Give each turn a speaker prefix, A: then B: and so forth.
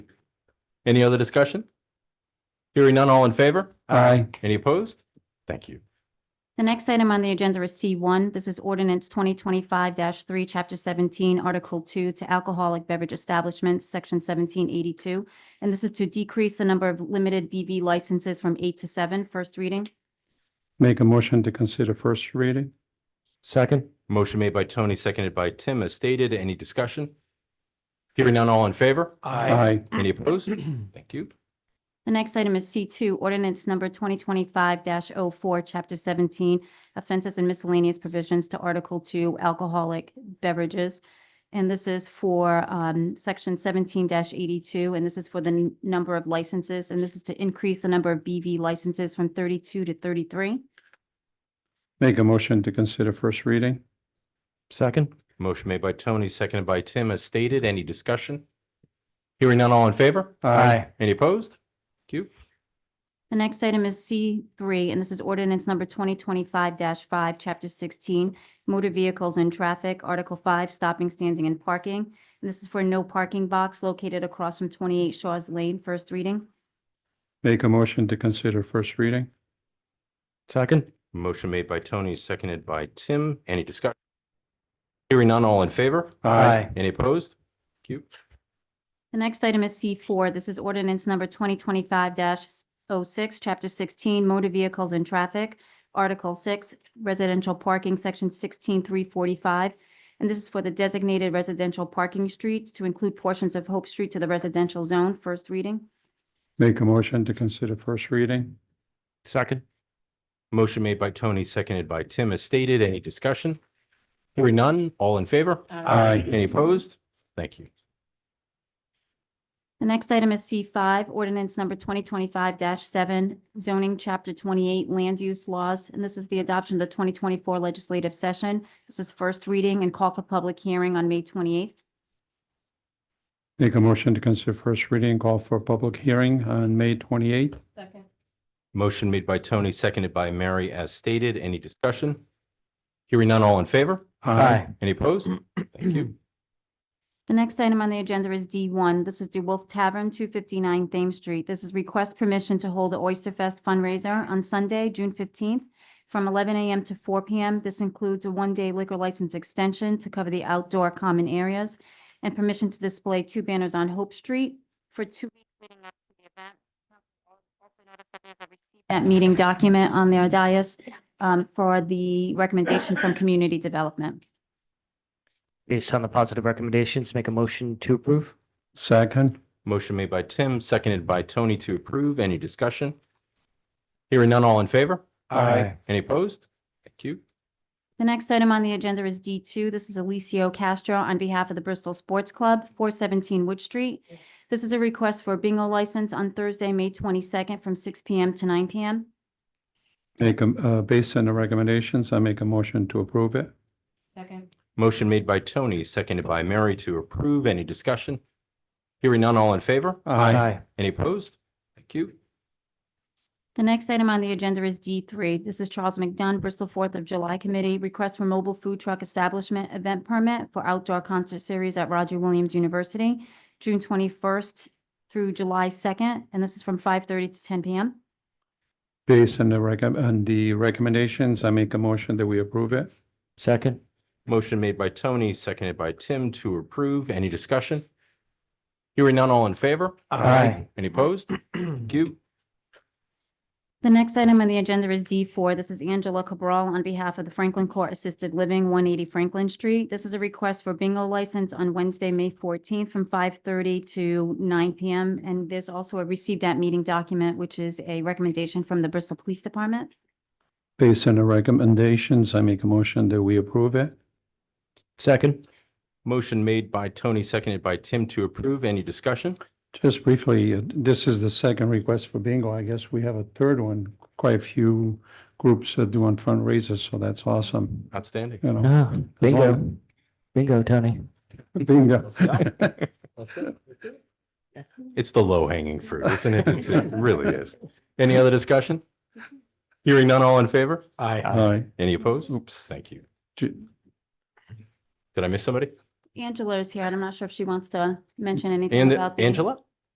A: Any other discussion? Hearing none, all in favor?
B: Aye.
A: Any opposed? Thank you.
C: The next item on the agenda is C1. This is ordinance 2025-3, Chapter 17, Article 2, to alcoholic beverage establishments, Section 1782. And this is to decrease the number of limited BV licenses from eight to seven. First reading.
B: Make a motion to consider first reading.
A: Second. Motion made by Tony, seconded by Tim, as stated. Any discussion? Hearing none, all in favor?
B: Aye.
A: Any opposed? Thank you.
C: The next item is C2, ordinance number 2025-04, Chapter 17, offenses and miscellaneous provisions to Article 2, alcoholic beverages. And this is for um, Section 17-82, and this is for the n- number of licenses, and this is to increase the number of BV licenses from 32 to 33.
B: Make a motion to consider first reading.
D: Second.
A: Motion made by Tony, seconded by Tim, as stated. Any discussion? Hearing none, all in favor? Any opposed? Thank you.
C: The next item is C3, and this is ordinance number 2025-5, Chapter 16, Motor Vehicles and Traffic, Article 5, Stopping, Standing, and Parking. And This is for no parking box located across from 28 Shaw's Lane. First reading.
B: Make a motion to consider first reading.
D: Second.
A: Motion made by Tony, seconded by Tim. Any discussion? Hearing none, all in favor?
D: Aye.
A: Any opposed? Thank you.
C: The next item is C4. This is ordinance number 2025-06, Chapter 16, Motor Vehicles and Traffic, Article 6, Residential Parking, Section 16345. And this is for the designated residential parking streets to include portions of Hope Street to the residential zone. First reading.
B: Make a motion to consider first reading.
D: Second.
A: Motion made by Tony, seconded by Tim, as stated. Any discussion? Hearing none, all in favor?
B: Aye.
A: Any opposed? Thank you.
C: The next item is C5, ordinance number 2025-7, zoning chapter 28, land use laws. And this is the adoption of the 2024 legislative session. This is first reading and call for public hearing on May 28th.
B: Make a motion to consider first reading, call for a public hearing on May twenty-eighth.
C: Second.
A: Motion made by Tony, seconded by Mary, as stated. Any discussion? Hearing none, all in favor? Any opposed? Thank you.
C: The next item on the agenda is D1. This is DeWolf Tavern, 259 Thames Street. This is request permission to hold the Oyster Fest fundraiser on Sunday, June 15th, from 11 a.m. to 4 p.m. This includes a one-day liquor license extension to cover the outdoor common areas and permission to display two banners on Hope Street for two weeks leading up to the event. Also notice that there's a receipt- That meeting document on their dais um, for the recommendation from Community Development.
D: Based on the positive recommendations, make a motion to approve.
B: Second.
A: Motion made by Tim, seconded by Tony to approve. Any discussion? Hearing none, all in favor?
D: Aye.
A: Any opposed? Thank you.
C: The next item on the agenda is D2. This is Alicio Castro on behalf of the Bristol Sports Club, 417 Wood Street. This is a request for a bingo license on Thursday, May 22nd, from 6 PM to 9 PM.
B: Make a, uh, based on the recommendations, I make a motion to approve it.
C: Second.
A: Motion made by Tony, seconded by Mary to approve. Any discussion? Hearing none, all in favor? Any opposed? Thank you.
C: The next item on the agenda is D3. This is Charles McDunn, Bristol Fourth of July Committee, request for mobile food truck establishment event permit for outdoor concert series at Roger Williams University, June 21st through July 2nd, and this is from 5:30 to 10 PM.
B: Based on the recom, on the recommendations, I make a motion that we approve it.
D: Second.
A: Motion made by Tony, seconded by Tim to approve. Any discussion? Hearing none, all in favor?
D: Aye.
A: Any opposed? Thank you.
C: The next item on the agenda is D4. This is Angela Cabral on behalf of the Franklin Court Assisted Living, 180 Franklin Street. This is a request for bingo license on Wednesday, May 14th, from 5:30 to 9 PM. And there's also a received at meeting document, which is a recommendation from the Bristol Police Department.
B: Based on the recommendations, I make a motion that we approve it.
D: Second.
A: Motion made by Tony, seconded by Tim to approve. Any discussion?
B: Just briefly, uh, this is the second request for bingo. I guess we have a third one. Quite a few groups are doing fundraisers, so that's awesome.
A: Outstanding.
B: You know,
D: No. Bingo. Ah, Bingo, Tony.
B: bingo.
A: It's the low hanging fruit, isn't it? It's- It really is. Any other discussion? Hearing none, all in favor? Aye.
B: Aye.
A: Any opposed?
B: Oops.
A: Thank you.
B: Ju-
A: Did I miss somebody?
C: Angela is here, and I'm not sure if she wants to mention anything
A: And
C: about the
A: Angela?